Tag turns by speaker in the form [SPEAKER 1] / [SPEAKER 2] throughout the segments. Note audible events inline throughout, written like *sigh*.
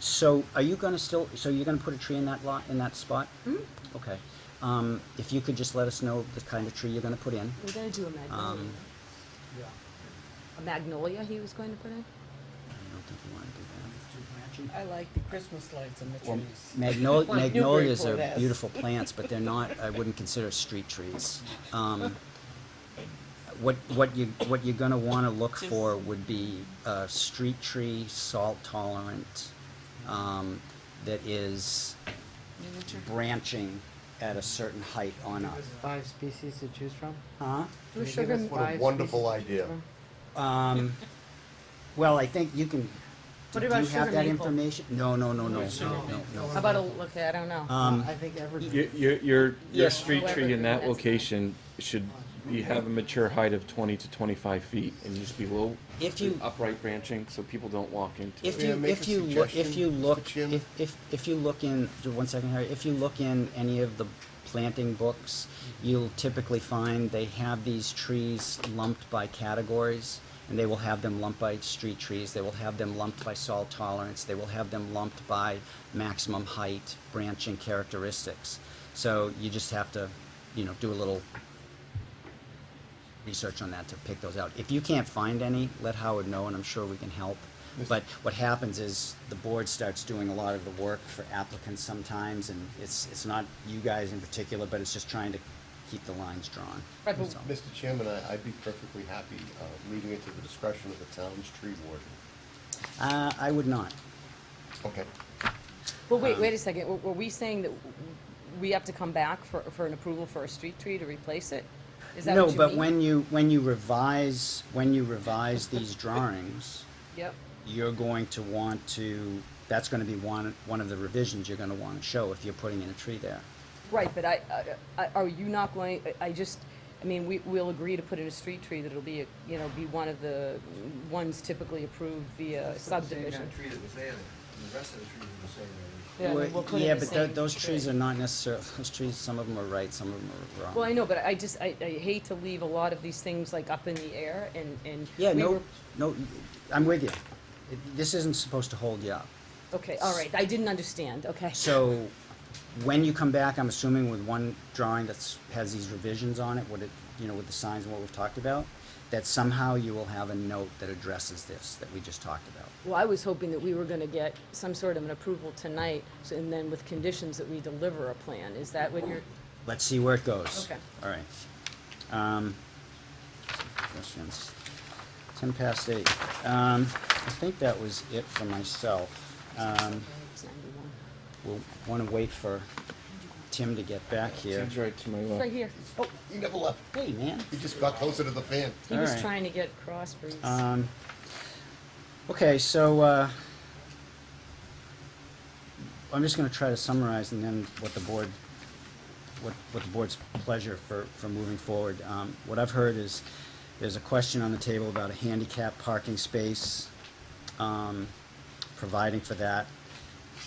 [SPEAKER 1] So are you gonna still, so you're gonna put a tree in that lot, in that spot? Okay. Um, if you could just let us know the kind of tree you're gonna put in.
[SPEAKER 2] We're gonna do a magnolia.
[SPEAKER 1] Um,
[SPEAKER 3] Yeah.
[SPEAKER 2] A magnolia he was going to put in?
[SPEAKER 1] I don't think you wanna do
[SPEAKER 4] I like the Christmas lights and the
[SPEAKER 1] that. *laughs* Well,
[SPEAKER 4] trees.
[SPEAKER 1] magnol-
[SPEAKER 4] Like
[SPEAKER 1] magnolias are
[SPEAKER 4] Newburyport has.
[SPEAKER 1] beautiful plants, but they're not, I wouldn't consider street trees. Um, what, what you, what you're gonna wanna look
[SPEAKER 4] Just-
[SPEAKER 1] for would be a street tree, salt tolerant, um, that is
[SPEAKER 4] Miniature.
[SPEAKER 1] branching at a certain height on up.
[SPEAKER 3] There's five species to choose from?
[SPEAKER 1] Huh?
[SPEAKER 3] Can you give
[SPEAKER 2] sugar
[SPEAKER 3] us
[SPEAKER 2] and-
[SPEAKER 5] What a
[SPEAKER 3] five
[SPEAKER 5] wonderful
[SPEAKER 3] species to choose
[SPEAKER 5] idea.
[SPEAKER 3] from?
[SPEAKER 1] Um, well, I think you can, do
[SPEAKER 2] What
[SPEAKER 1] you
[SPEAKER 2] about
[SPEAKER 1] have
[SPEAKER 2] sugar
[SPEAKER 1] that
[SPEAKER 2] maple?
[SPEAKER 1] information? No, no, no, no,
[SPEAKER 3] No.
[SPEAKER 1] no, no,
[SPEAKER 2] How about a, look, I don't know.
[SPEAKER 1] no. Um,
[SPEAKER 3] I think evergreen.
[SPEAKER 6] Your, your, your, your
[SPEAKER 1] Yes.
[SPEAKER 6] street tree in that
[SPEAKER 2] However,
[SPEAKER 6] location should, you have a mature height of twenty to twenty-five feet and just be low.
[SPEAKER 1] If you-
[SPEAKER 6] Upright branching, so people don't walk into
[SPEAKER 1] if
[SPEAKER 6] it.
[SPEAKER 5] May I
[SPEAKER 1] you,
[SPEAKER 5] make
[SPEAKER 1] if
[SPEAKER 5] a
[SPEAKER 1] you, loo- if
[SPEAKER 5] suggestion,
[SPEAKER 1] you
[SPEAKER 5] Mr.
[SPEAKER 1] look,
[SPEAKER 5] Chairman?
[SPEAKER 1] if, if, if you look in, do one second, Harry, if you look in any of the planting books, you'll typically find they have these trees lumped by categories, and they will have them lumped by street trees, they will have them lumped by salt tolerance, they will have them lumped by maximum height, branching characteristics. So you just have to, you know, do a little research on that to pick those out. If you can't find any, let Howard know, and I'm sure we can help. But what happens is the board starts doing a lot of the work for applicants sometimes, and it's, it's not you guys in particular, but it's just trying to keep the lines drawn.
[SPEAKER 2] Right, but-
[SPEAKER 1] So,
[SPEAKER 5] Mr. Chairman, I, I'd be perfectly happy, uh, leaving it to the discretion of the town's tree warden.
[SPEAKER 1] Uh, I would not.
[SPEAKER 5] Okay.
[SPEAKER 2] Well,
[SPEAKER 1] uh,
[SPEAKER 2] wait, wait a second, were, were we saying that w- we have to come back for, for an approval for a street tree to replace it? Is that what you
[SPEAKER 1] No,
[SPEAKER 2] mean?
[SPEAKER 1] but when you, when you revise, when you revise these drawings,
[SPEAKER 2] Yep,
[SPEAKER 1] you're going to want to, that's gonna be one, one of the revisions you're gonna wanna show if you're putting in a tree there.
[SPEAKER 2] right, but I, I- I, are you not going, I- I just, I mean, we, we'll agree to put in a street tree that'll be, a- you know, be one of the ones typically approved via subdivision.
[SPEAKER 7] Same kind of tree that was there, and the rest of the trees were the same age.
[SPEAKER 2] Yeah, I mean,
[SPEAKER 1] Well,
[SPEAKER 2] we'll put in
[SPEAKER 1] yeah,
[SPEAKER 2] the
[SPEAKER 1] but tho-
[SPEAKER 2] same
[SPEAKER 1] those
[SPEAKER 2] tree.
[SPEAKER 1] trees are not necessarily, those trees, some of them are right, some of them are wrong.
[SPEAKER 2] Well, I know, but I just, I, I hate to leave a lot of these things like up in the air and, and.
[SPEAKER 1] Yeah,
[SPEAKER 2] we
[SPEAKER 1] no,
[SPEAKER 2] were-
[SPEAKER 1] no, I'm with you. It- This isn't supposed to hold you up.
[SPEAKER 2] Okay, all right, I didn't understand, okay.
[SPEAKER 1] So when you come back, I'm assuming with one drawing that's, has these revisions on it, what it, you know, with the signs and what we've talked about, that somehow you will have a note that addresses this that we just talked about.
[SPEAKER 2] Well, I was hoping that we were gonna get some sort of an approval tonight, so- and then with conditions that we deliver a plan, is that what you're?
[SPEAKER 1] Let's see where it goes.
[SPEAKER 2] Okay.
[SPEAKER 1] All right. Um, questions? Ten past eight. Um, I think that was it for myself. Um,
[SPEAKER 2] It's 91.
[SPEAKER 1] we'll wanna wait for Tim to get back here.
[SPEAKER 6] Tim's right to my
[SPEAKER 2] Right
[SPEAKER 6] left.
[SPEAKER 2] here,
[SPEAKER 5] Oh, you never left.
[SPEAKER 1] Hey, man.
[SPEAKER 5] You just got closer to the fan.
[SPEAKER 2] he
[SPEAKER 1] All
[SPEAKER 2] was
[SPEAKER 1] right.
[SPEAKER 2] trying to get crossbreeds.
[SPEAKER 1] Um, okay, so, uh, I'm just gonna try to summarize and then what the board, what, what the board's pleasure for, for moving forward. Um, what I've heard is, there's a question on the table about a handicap parking space, um, providing for that.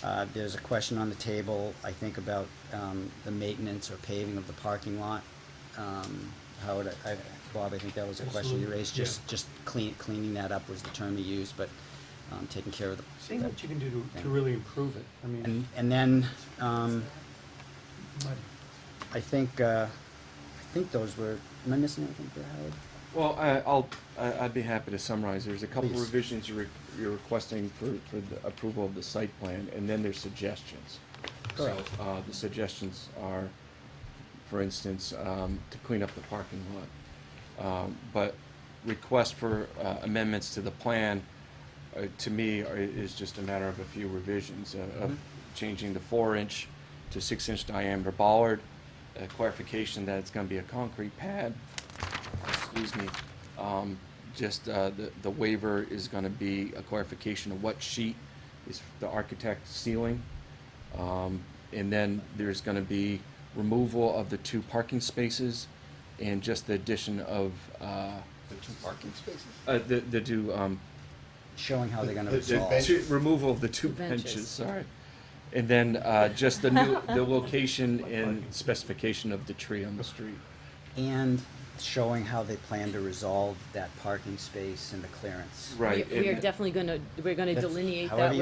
[SPEAKER 1] Uh, there's a question on the table, I think, about, um, the maintenance or paving of the parking lot. Um, Howard, I, I- Bob, I think that was a question you
[SPEAKER 8] Absolutely,
[SPEAKER 1] raised,
[SPEAKER 8] yeah.
[SPEAKER 1] just, just clean, cleaning that up was the term you used, but, um, taking care of the.
[SPEAKER 8] Seeing
[SPEAKER 1] that-
[SPEAKER 8] what you can do to, to really improve it, I mean,
[SPEAKER 1] and, and then, um,
[SPEAKER 8] mud.
[SPEAKER 1] I think, uh, I think those were, am I missing anything there, Howard?
[SPEAKER 6] Well, I, I'll, I- I'd be happy to summarize. There's a couple
[SPEAKER 1] Please.
[SPEAKER 6] revisions you're, re- you're requesting for, for the approval of the site plan, and then there's suggestions. So,
[SPEAKER 1] Correct.
[SPEAKER 6] uh, the suggestions are, for instance, um, to clean up the parking lot. Um, but request for uh, amendments to the plan, uh, to me, are- is just a matter of a few revisions uh, of changing the four-inch to six-inch diameter bollard, a clarification that it's gonna be a concrete pad, excuse me, um, just, uh, the, the waiver is gonna be a clarification of what sheet is the architect sealing. Um, and then there's gonna be removal of the two parking spaces and just the addition of, uh,
[SPEAKER 5] The two parking spaces.
[SPEAKER 6] uh, the, the two, um,
[SPEAKER 1] Showing how they're gonna
[SPEAKER 6] the- the
[SPEAKER 1] resolve.
[SPEAKER 6] two- Removal of the two
[SPEAKER 2] Benches.
[SPEAKER 6] benches, sorry. And then, uh, just the new, the location and specification of the tree on the street.
[SPEAKER 1] And showing how they plan to resolve that parking space and the clearance.
[SPEAKER 6] Right.
[SPEAKER 2] We we are
[SPEAKER 6] and-
[SPEAKER 2] definitely gonna, we're gonna
[SPEAKER 1] That's-
[SPEAKER 2] delineate that
[SPEAKER 1] however